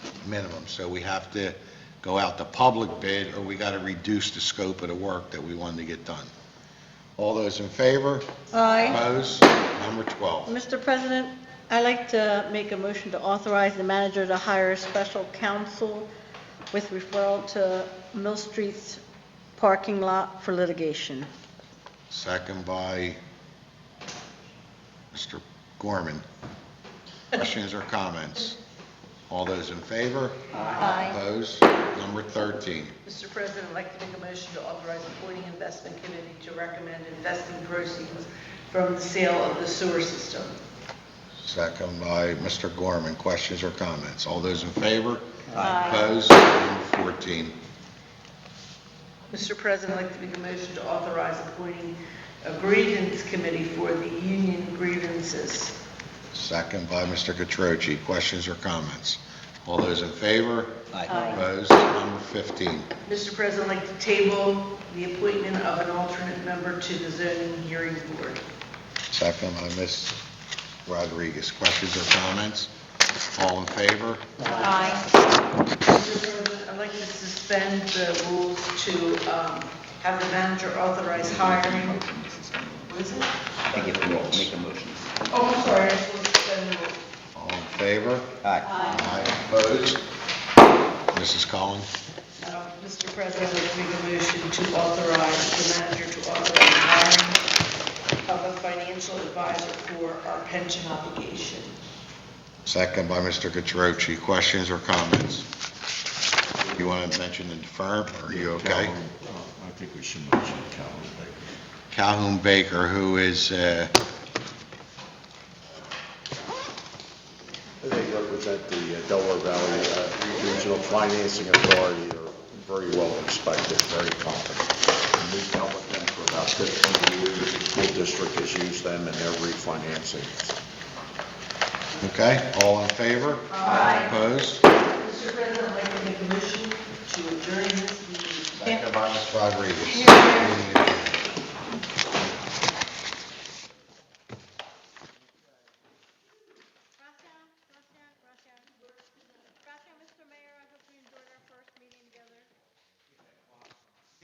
minimum. So we have to go out to public bid, or we got to reduce the scope of the work that we wanted to get done. All those in favor? Aye. Opposed? Number 12. Mr. President, I'd like to make a motion to authorize the manager to hire special counsel with referral to Mill Street's parking lot for litigation. Second by Mr. Gorman. Questions or comments? All those in favor? Aye. Opposed? Number 13. Mr. President, I'd like to make a motion to authorize the Boarding Investment Committee to recommend investing proceeds from the sale of the sewer system. Second by Mr. Gorman. Questions or comments? All those in favor? Aye. Opposed? Number 14. Mr. President, I'd like to make a motion to authorize appointing a grievance committee for the union grievances. Second by Mr. Catroci. Questions or comments? All those in favor? Aye. Opposed? Number 15. Mr. President, I'd like to table the appointment of an alternate member to the zoning hearing board. Second by Ms. Rodriguez. Questions or comments? All in favor? Aye. Mr. President, I'd like to suspend the rules to um, have the manager authorize hiring. What is it? I think it will make a motion. Oh, I'm sorry, I just want to suspend the rules. All in favor? Aye. Aye. Opposed? Mrs. Collins? Uh, Mr. President, I would make a motion to authorize the manager to authorize hiring of a financial advisor for our pension obligation. Second by Mr. Catroci. Questions or comments? You want to mention the firm, or are you okay? Calhoun, uh, I think we should mention Calhoun Baker. Calhoun Baker, who is, uh, They represent the uh, Delaware Valley uh, Regional Financing Authority, are very well respected, very competent. And We've dealt with them for about 15 years, the school district has used them in their refinancing. okay? All in favor? Aye. Opposed? Mr. President, I'd like to make a motion to adjourn this meeting. Second by Ms. Rodriguez. Here, here.